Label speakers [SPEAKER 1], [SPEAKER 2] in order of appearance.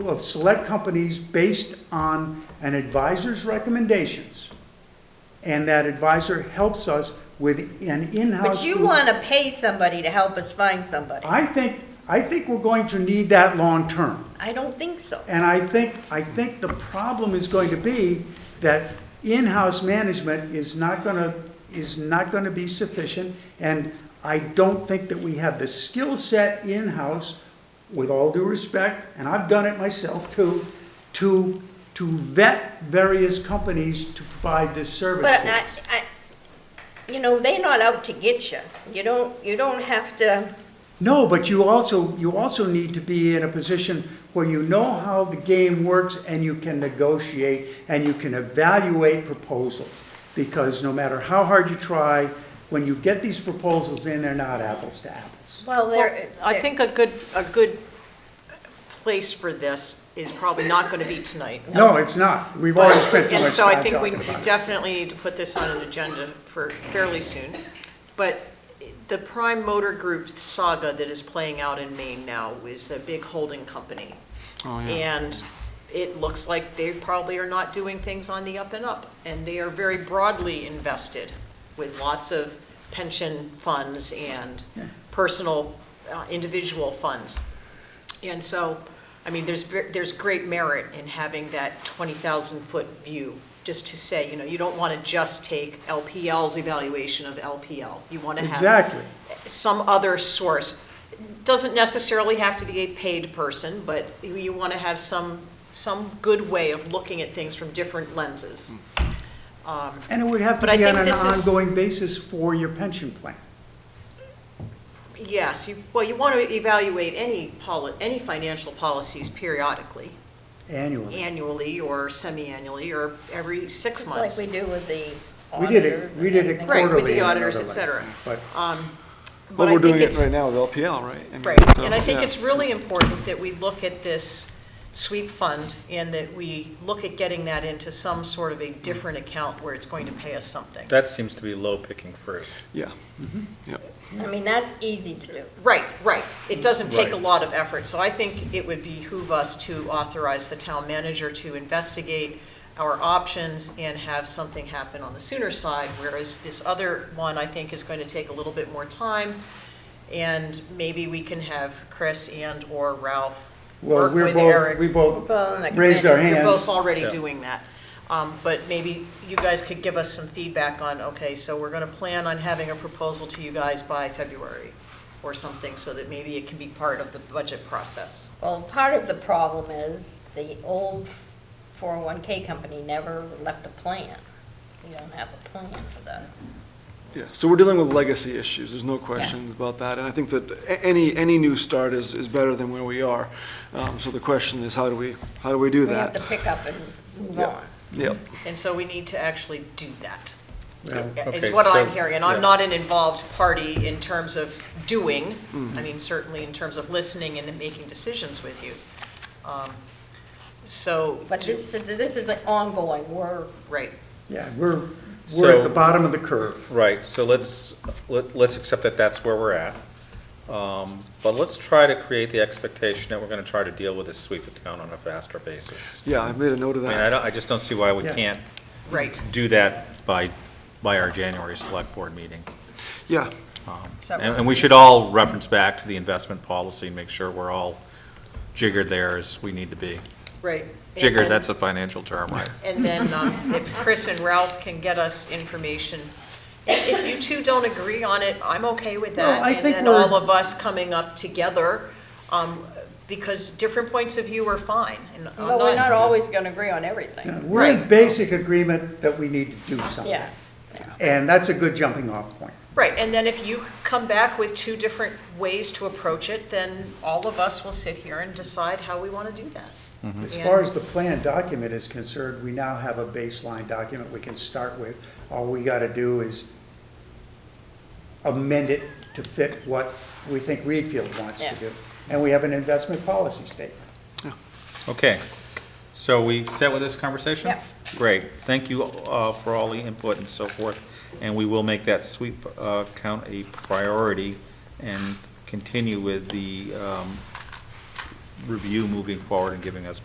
[SPEAKER 1] of select companies based on an advisor's recommendations. And that advisor helps us with an in-house.
[SPEAKER 2] But you
[SPEAKER 1] group.
[SPEAKER 2] want to pay somebody to help us find somebody.
[SPEAKER 1] I think, I think we're going to need that long-term.
[SPEAKER 2] I don't think so.
[SPEAKER 1] And I think, I think the problem is going to be that in-house management is not gonna, is not gonna be sufficient, and I don't think that we have the skill set in-house, with all due respect, and I've done it myself too, to, to vet various companies to provide this service.
[SPEAKER 2] But
[SPEAKER 1] to
[SPEAKER 2] I,
[SPEAKER 1] us.
[SPEAKER 2] I, you know, they're not out to get you. You don't, you don't have to,
[SPEAKER 1] No, but you also, you also need to be in a position where you know how the game works and you can negotiate and you can evaluate proposals. Because no matter how hard you try, when you get these proposals in, they're not apples to apples.
[SPEAKER 2] well,
[SPEAKER 3] Well,
[SPEAKER 2] they're.
[SPEAKER 3] I
[SPEAKER 2] they're-
[SPEAKER 3] think a good, a good place for this is probably not going to be tonight.
[SPEAKER 1] No, it's not. We've already spent too
[SPEAKER 3] And
[SPEAKER 1] much
[SPEAKER 3] so I
[SPEAKER 1] time
[SPEAKER 3] think we
[SPEAKER 1] talking about it.
[SPEAKER 3] definitely need to put this on an agenda for fairly soon. But the Prime Motor Group saga that is playing out in Maine now is a big holding company. And it looks like they probably are not doing things on the up and up. And they are very broadly invested with lots of pension funds and personal, uh, individual funds. And so, I mean, there's, ver- there's great merit in having that 20,000-foot view, just to say, you know, you don't want to just take LPL's evaluation of LPL. You want to have
[SPEAKER 1] Exactly.
[SPEAKER 3] some other source. Doesn't necessarily have to be a paid person, but you- you want to have some, some good way of looking at things from different lenses. Um,
[SPEAKER 1] And it would have to
[SPEAKER 3] But I
[SPEAKER 1] be on
[SPEAKER 3] think
[SPEAKER 1] an
[SPEAKER 3] this is-
[SPEAKER 1] ongoing basis for your pension plan.
[SPEAKER 3] Yes, you, well, you want to evaluate any poli, any financial policies periodically.
[SPEAKER 1] Annually.
[SPEAKER 3] annually or semi-annually or every six
[SPEAKER 2] Just like
[SPEAKER 3] months.
[SPEAKER 2] we do with the
[SPEAKER 1] We did
[SPEAKER 2] auditors
[SPEAKER 1] it, we
[SPEAKER 2] and
[SPEAKER 1] did it
[SPEAKER 2] everything.
[SPEAKER 1] quarterly.
[SPEAKER 3] Right, with the
[SPEAKER 1] in another
[SPEAKER 3] auditors, et
[SPEAKER 1] way.
[SPEAKER 3] cetera.
[SPEAKER 1] But
[SPEAKER 3] Um, But
[SPEAKER 4] But
[SPEAKER 3] I
[SPEAKER 4] we're
[SPEAKER 3] think
[SPEAKER 4] doing it
[SPEAKER 3] it's,
[SPEAKER 4] right now with LPL, right? I mean,
[SPEAKER 3] right,
[SPEAKER 4] so,
[SPEAKER 3] and I think
[SPEAKER 4] yeah.
[SPEAKER 3] it's really important that we look at this sweep fund and that we look at getting that into some sort of a different account where it's going to pay us something.
[SPEAKER 5] That seems to be low picking fruit.
[SPEAKER 4] Yeah,
[SPEAKER 2] I mean, that's easy to do.
[SPEAKER 3] Right, right. It doesn't take a
[SPEAKER 5] Right.
[SPEAKER 3] lot of effort, so I think it would behoove us to authorize the town manager to investigate our options and have something happen on the sooner side, whereas this other one, I think, is going to take a little bit more time. And maybe we can have Chris and/or Ralph
[SPEAKER 1] Well,
[SPEAKER 3] work
[SPEAKER 1] we're
[SPEAKER 3] with
[SPEAKER 1] both,
[SPEAKER 3] Eric.
[SPEAKER 1] we both
[SPEAKER 2] Well, like-
[SPEAKER 1] raised our
[SPEAKER 3] You're
[SPEAKER 1] hands.
[SPEAKER 3] both already
[SPEAKER 5] Yeah.
[SPEAKER 3] doing that. Um, But maybe you guys could give us some feedback on, okay, so we're going to plan on having a proposal to you guys by February or something, so that maybe it can be part of the budget process.
[SPEAKER 2] Well, part of the problem is the old 401K company never left a plan. We don't have a plan for that.
[SPEAKER 4] yeah. So we're dealing with legacy issues, there's no question about that. And I think that a- any, any new start is, is better than where we are. Um, So the question is, how do we, how do we do
[SPEAKER 2] We have to
[SPEAKER 4] that?
[SPEAKER 2] pick up and move
[SPEAKER 4] Yeah.
[SPEAKER 2] on.
[SPEAKER 4] Yep,
[SPEAKER 3] And so we need to actually do that, is
[SPEAKER 5] Okay,
[SPEAKER 3] what I'm
[SPEAKER 5] so-
[SPEAKER 3] hearing. And
[SPEAKER 5] yeah.
[SPEAKER 3] I'm not an involved party in terms of doing,
[SPEAKER 5] Mm-hmm.
[SPEAKER 3] I mean, certainly in terms of listening and making decisions with you. Um, So,
[SPEAKER 2] But this, this is an ongoing work.
[SPEAKER 3] right,
[SPEAKER 1] Yeah, we're, we're at the
[SPEAKER 5] So-
[SPEAKER 1] bottom of the curve.
[SPEAKER 5] Right, so let's, let- let's accept that that's where we're at. Um, But let's try to create the expectation that we're going to try to deal with this sweep account on a faster basis.
[SPEAKER 4] yeah, I've made a note of
[SPEAKER 5] I mean, I
[SPEAKER 4] that.
[SPEAKER 5] don't, I just don't see why we
[SPEAKER 1] Yeah.
[SPEAKER 5] can't
[SPEAKER 3] right.
[SPEAKER 5] do that by, by our January select board meeting.
[SPEAKER 4] Yeah,
[SPEAKER 3] So-
[SPEAKER 5] And and we should all reference back to the investment policy and make sure we're all jiggered there as we need to be.
[SPEAKER 3] Right.
[SPEAKER 5] Jiggered,
[SPEAKER 3] And-
[SPEAKER 5] that's a financial term, right?
[SPEAKER 3] And then um, if Chris and Ralph can get us information, if you two don't agree on it, I'm okay with
[SPEAKER 1] No,
[SPEAKER 3] that.
[SPEAKER 1] I think
[SPEAKER 3] And then
[SPEAKER 1] we're-
[SPEAKER 3] all of us coming up together, um, because different points of view are fine. and I'm
[SPEAKER 2] Well, we're not always going to agree on everything.
[SPEAKER 1] Yeah, We're in
[SPEAKER 3] Right.
[SPEAKER 1] basic agreement that we need to do something.
[SPEAKER 2] Yeah.
[SPEAKER 1] And that's a good jumping off point.
[SPEAKER 3] Right, and then if you come back with two different ways to approach it, then all of us will sit here and decide how we want to do that.
[SPEAKER 1] As
[SPEAKER 3] Yeah.
[SPEAKER 1] far as the plan document is concerned, we now have a baseline document we can start with. All we got to do is amend it to fit what we think Reedfield wants to
[SPEAKER 2] Yeah.
[SPEAKER 1] do. And we have an investment policy statement.
[SPEAKER 5] Okay, so we set with this conversation?
[SPEAKER 2] Yeah.
[SPEAKER 5] Great, thank you uh, for all the input and so forth, and we will make that sweep uh, count a priority and continue with the um, review moving forward and giving us